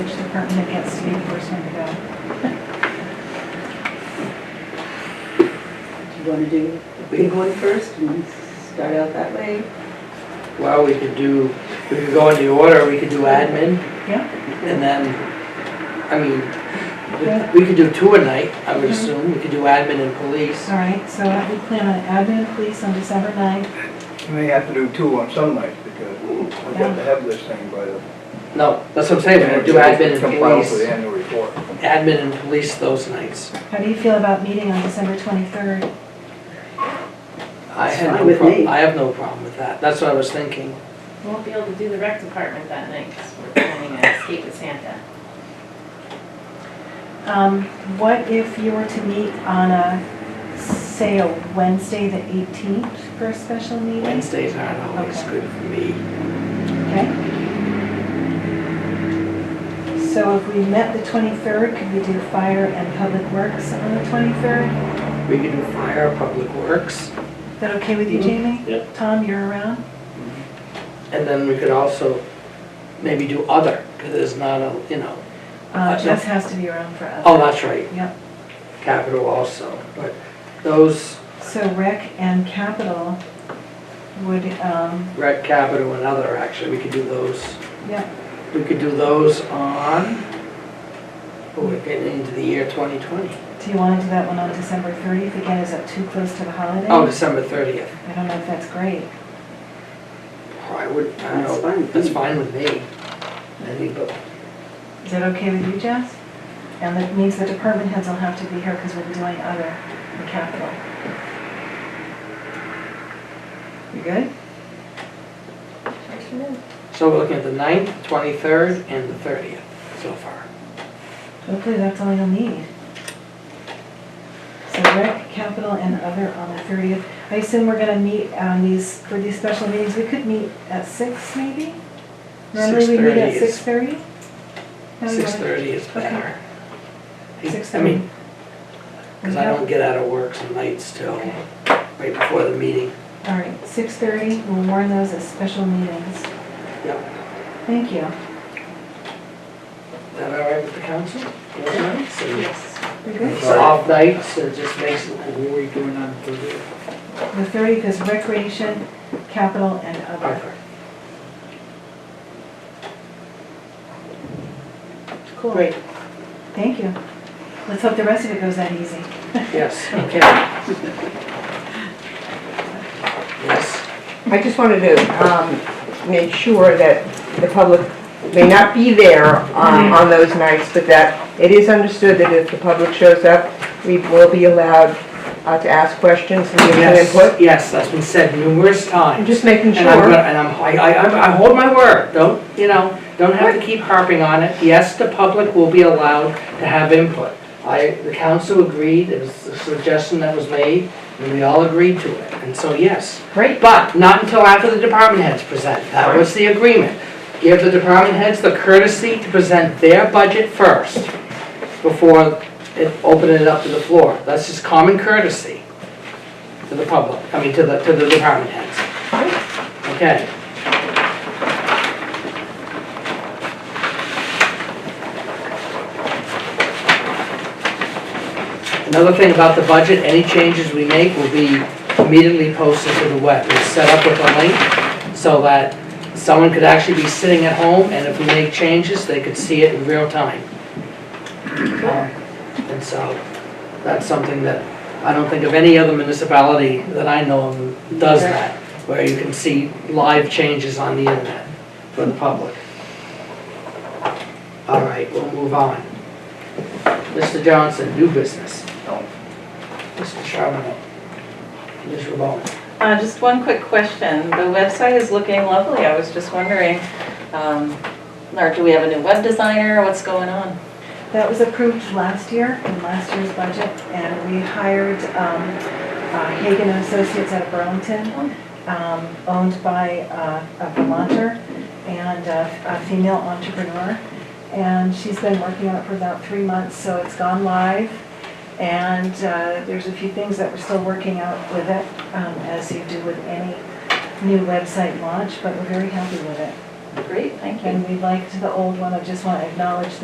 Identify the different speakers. Speaker 1: department, it gets to be the first one to go.
Speaker 2: Do you want to do the big one first and start out that way?
Speaker 3: Well, we could do, we could go in the order, we could do admin.
Speaker 1: Yeah.
Speaker 3: And then, I mean, we could do two a night, I
Speaker 2: Mm-hmm.
Speaker 3: would assume, we could do admin and police.
Speaker 1: All right, so we plan on admin, police on December 9th.
Speaker 4: You may have to do two on some nights because we've got to have this thing by the.
Speaker 3: No, that's what I'm saying, we're gonna do admin and
Speaker 4: Compile for the
Speaker 3: police,
Speaker 4: annual report.
Speaker 3: admin and police those nights.
Speaker 1: How do you feel about meeting on December 23rd?
Speaker 3: I
Speaker 2: It's
Speaker 3: had
Speaker 2: fine
Speaker 3: no
Speaker 2: with
Speaker 3: problem,
Speaker 2: me.
Speaker 3: I have no problem with that, that's what I was thinking.
Speaker 5: Won't be able to do the rec department that night because we're planning an escape with Santa.
Speaker 1: Um, What if you were to meet on a, say, a Wednesday, the 18th for a special meeting?
Speaker 3: Wednesdays aren't always
Speaker 1: Okay.
Speaker 3: good for me.
Speaker 1: Okay. So if we met the 23rd, could we do fire and public works on the 23rd?
Speaker 3: We could do fire, public works,
Speaker 1: Is that okay with you,
Speaker 3: Mhm.
Speaker 1: Jamie?
Speaker 6: Yep.
Speaker 1: Tom, you're around?
Speaker 3: and then we could also maybe do other, because there's not a, you know,
Speaker 1: Uh,
Speaker 3: Uh,
Speaker 1: Jess has to be around for us.
Speaker 3: oh, that's right,
Speaker 1: Yep,
Speaker 3: capital also, but those
Speaker 1: so rec and capital would, um,
Speaker 3: Rec Capital and other, actually, we could do those,
Speaker 1: yeah,
Speaker 3: we could do those on, oh, we're getting into the year 2020.
Speaker 1: do you want to do that one on December thirtieth? Again, is that too close to the holiday?
Speaker 3: Oh, December 30th.
Speaker 1: I don't know if that's great.
Speaker 3: Oh, I would, I
Speaker 2: That's
Speaker 3: don't
Speaker 2: fine
Speaker 3: know,
Speaker 2: with
Speaker 3: that's
Speaker 2: me.
Speaker 3: fine with me. I think, but
Speaker 1: Is that okay with you, Jess? And that means the department heads will have to be here because we'll be doing other and capital. You good?
Speaker 3: So we're looking at the 9th, 23rd, and the 30th so far.
Speaker 1: Hopefully that's all you'll need. So rec, capital, and other on the thirtieth. I assume we're gonna meet on these, for these special meetings, we could meet at six maybe? Normally we meet
Speaker 3: 6:30
Speaker 1: at
Speaker 3: is-
Speaker 1: six thirty?
Speaker 3: 6:30 is better.
Speaker 1: Six
Speaker 3: I
Speaker 1: thirty.
Speaker 3: mean, because I don't get out of work some nights till
Speaker 1: Okay.
Speaker 3: right before the meeting.
Speaker 1: All right, six thirty, we'll warn those as special meetings.
Speaker 3: Yep.
Speaker 1: Thank you.
Speaker 3: Is that all right with the council? Those nights?
Speaker 5: Yes.
Speaker 1: We good?
Speaker 3: It's off nights, it just makes it. What were you doing on the 30th?
Speaker 1: The thirtieth is recreation, capital, and other.
Speaker 3: Arthur.
Speaker 1: Cool. Great. Thank you. Let's hope the rest of it goes that easy.
Speaker 3: Yes, okay. Yes.
Speaker 7: I just wanted to um, make sure that the public may not be there
Speaker 3: Mm-hmm.
Speaker 7: um, on those nights, but that it is understood that if the public shows up, we will be allowed uh, to ask questions and give them input.
Speaker 3: Yes, yes, that's been said numerous
Speaker 7: I'm
Speaker 3: times.
Speaker 7: just making
Speaker 3: And I'm, gonna-
Speaker 7: sure.
Speaker 3: and I'm, I, I, I'm- I hold my word, don't, you know, don't have to keep harping on it. Yes, the public will be allowed to have input. I, the council agreed, it was a suggestion that was made, and we all agreed to it, and so yes.
Speaker 7: Great.
Speaker 3: But not until after the department heads present, that was the agreement. Give the department heads the courtesy to present their budget first, before it, opening it up to the floor. That's just common courtesy to the public, I mean, to the, to the department heads. Okay. Another thing about the budget, any changes we make will be immediately posted to the web. It's set up with a link so that someone could actually be sitting at home and if we make changes, they could see it in real time. Um, And so that's something that I don't think of any other municipality that I know of does that, where you can see live changes on the internet for the public. All right, we'll move on. Mr. Johnson, new business.
Speaker 4: No.
Speaker 3: Mr. Charbonneau. Ms. Ramon.
Speaker 5: Uh, just one quick question. The website is looking lovely. I was just wondering, um, or do we have a new web designer? What's going on?
Speaker 1: That was approved last year in last year's budget, and we hired um, uh, Hagan and Associates out of Burlington, um, owned by uh, a Vermonter and uh, a female entrepreneur. And she's been working on it for about three months, so it's gone live. And uh, there's a few things that we're still working out with it, um, as you do with any new website launch, but we're very happy with it.
Speaker 5: Great, thank you.
Speaker 1: And we liked the old one, I just want to acknowledge